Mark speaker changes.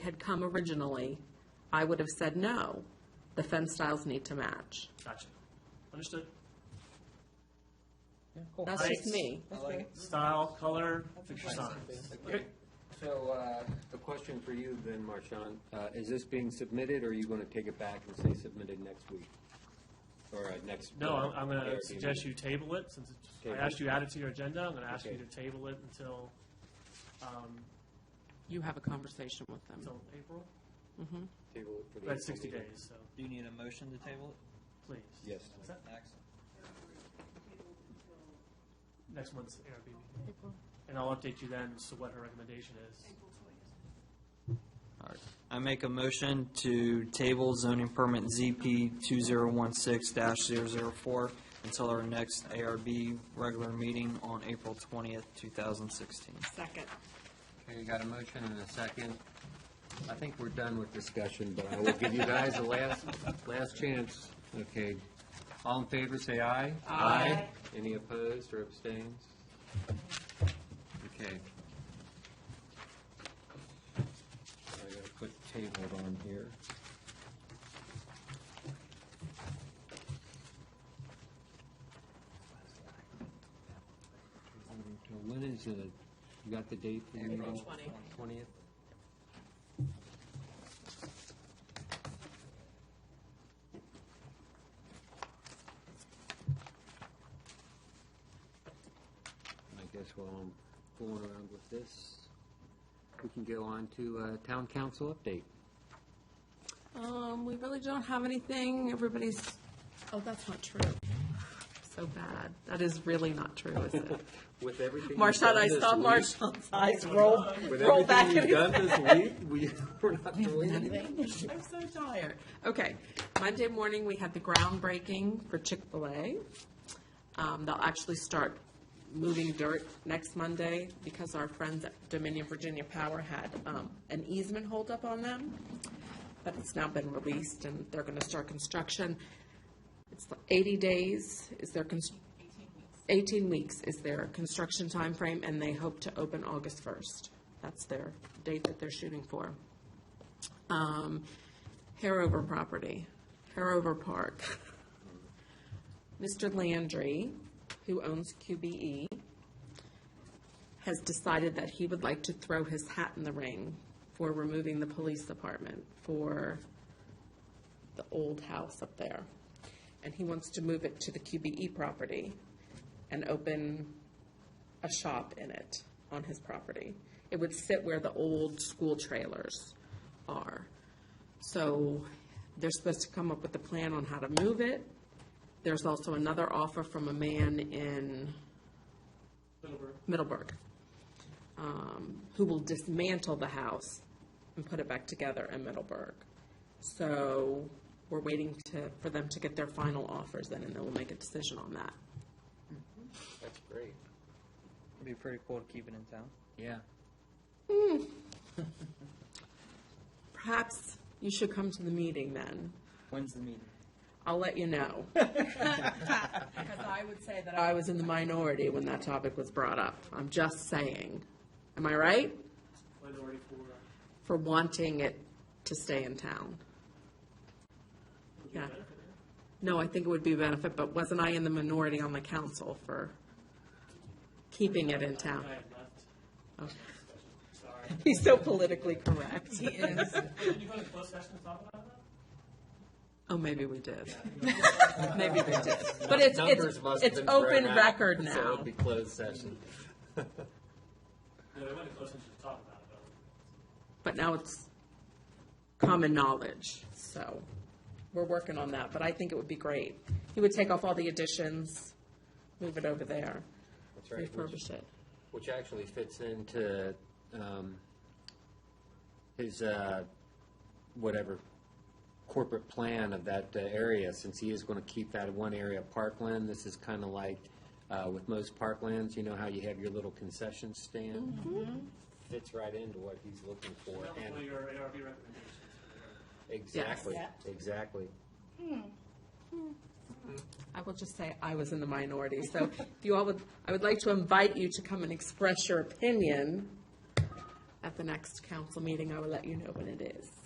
Speaker 1: had come originally, I would have said no. The fence styles need to match.
Speaker 2: Gotcha. Understood.
Speaker 1: That's just me.
Speaker 3: I like it.
Speaker 2: Style, color, fixture signs.
Speaker 3: Okay.
Speaker 4: So, uh, the question for you then, Marshawn, uh, is this being submitted, or are you gonna take it back and say submitted next week? Or uh, next?
Speaker 2: No, I'm, I'm
Speaker 4: ARB
Speaker 2: gonna
Speaker 4: meeting?
Speaker 2: suggest you table it, since it's- I
Speaker 4: Table.
Speaker 2: asked you to add it to your agenda, I'm gonna ask you
Speaker 4: Okay.
Speaker 2: to table it until, um,
Speaker 1: You have a conversation with them.
Speaker 2: until April?
Speaker 4: Table it for the.
Speaker 2: That's
Speaker 4: April
Speaker 2: sixty
Speaker 4: meeting.
Speaker 2: days, so,
Speaker 3: Do you need a motion to table
Speaker 2: please.
Speaker 4: Yes.
Speaker 2: Is that
Speaker 3: it, Max?
Speaker 2: Next month's ARB meeting. And I'll update you then as to what her recommendation is.
Speaker 3: All right. I make a motion to table zoning permit ZP 2016-004 until our next ARB regular meeting on April 20th, 2016.
Speaker 1: Second.
Speaker 4: Okay, you got a motion and a second. I think we're done with discussion, but I will give you guys a last, last chance. Okay. All in favor, say aye. Aye. Any opposed or abstains? Okay. I gotta put tabled on here. So When is it? You got the date for the meeting?
Speaker 1: April 20.
Speaker 4: Twentieth? I guess while I'm fooling around with this, we can go on to uh, town council update.
Speaker 1: Um, we really don't have anything. Everybody's, oh, that's not true. So bad. That is really not true, is it?
Speaker 4: With everything.
Speaker 1: Marshawn, I saw
Speaker 4: Marsh.
Speaker 1: Marshawn's eyes roll,
Speaker 4: With
Speaker 1: roll back
Speaker 4: everything
Speaker 1: in
Speaker 4: you've
Speaker 1: his
Speaker 4: done this week, we, we're not doing anything.
Speaker 1: I'm so tired. Okay, Monday morning, we had the groundbreaking for Chick-fil-A. Um, they'll actually start moving dirt next Monday because our friends at Dominion Virginia Power had, um, an easement holdup on them. But it's now been released and they're gonna start construction. It's eighty days is their cons- Eighteen weeks is their construction timeframe and they hope to open August first. That's their date that they're shooting for um, Harover property, Harover Park. Mr. Landry, who owns QBE, has decided that he would like to throw his hat in the ring for removing the police department for the old house up there. And he wants to move it to the QBE property and open a shop in it on his property. It would sit where the old school trailers are. So they're supposed to come up with a plan on how to move it. There's also another offer from a man in
Speaker 2: Middleburg.
Speaker 1: Middleburg um, who will dismantle the house and put it back together in Middleburg. So we're waiting to, for them to get their final offers in, and then we'll make a decision on that.
Speaker 4: That's great.
Speaker 3: It'd be pretty cool to keep it in town.
Speaker 4: Yeah.
Speaker 1: Perhaps you should come to the meeting then.
Speaker 3: When's the meeting?
Speaker 1: I'll let you know. Because I would say that I was in the minority when that topic was brought up. I'm just saying. Am I right?
Speaker 2: Minority for,
Speaker 1: For wanting it to stay in town.
Speaker 2: would be
Speaker 1: Yeah.
Speaker 2: benefit.
Speaker 1: No, I think it would be a benefit, but wasn't I in the minority on the council for keeping it in
Speaker 2: I
Speaker 1: town?
Speaker 2: had left. Sorry.
Speaker 1: He's so politically correct.
Speaker 2: Did you go to closed session to talk about
Speaker 1: Oh, maybe we did.
Speaker 2: that?
Speaker 1: Maybe we did. But it's,
Speaker 4: Numbers
Speaker 1: it's,
Speaker 4: must have
Speaker 1: it's
Speaker 4: been
Speaker 1: open
Speaker 4: thrown out,
Speaker 1: record
Speaker 4: So
Speaker 1: now.
Speaker 4: it'll be closed session.
Speaker 2: No, I went to closed session to talk about it, though.
Speaker 1: but now it's common knowledge, so we're working on that, but I think it would be great. He would take off all the additions, move it over there,
Speaker 4: That's right. We'll just-
Speaker 1: refurbish it.
Speaker 4: which actually fits into um, his uh, whatever corporate plan of that uh, area, since he is going to keep that one area of parkland. This is kind of like uh, with most parklands, you know how you have your little concession stand. Fits right into what he's looking for.
Speaker 2: That was
Speaker 4: and-
Speaker 2: one of your ARB recommendations.
Speaker 4: exactly,
Speaker 1: Yes.
Speaker 4: exactly.
Speaker 1: I will just say I was in the minority, so if you all would, I would like to invite you to come and express your opinion at the next council meeting, I will let you know when it is.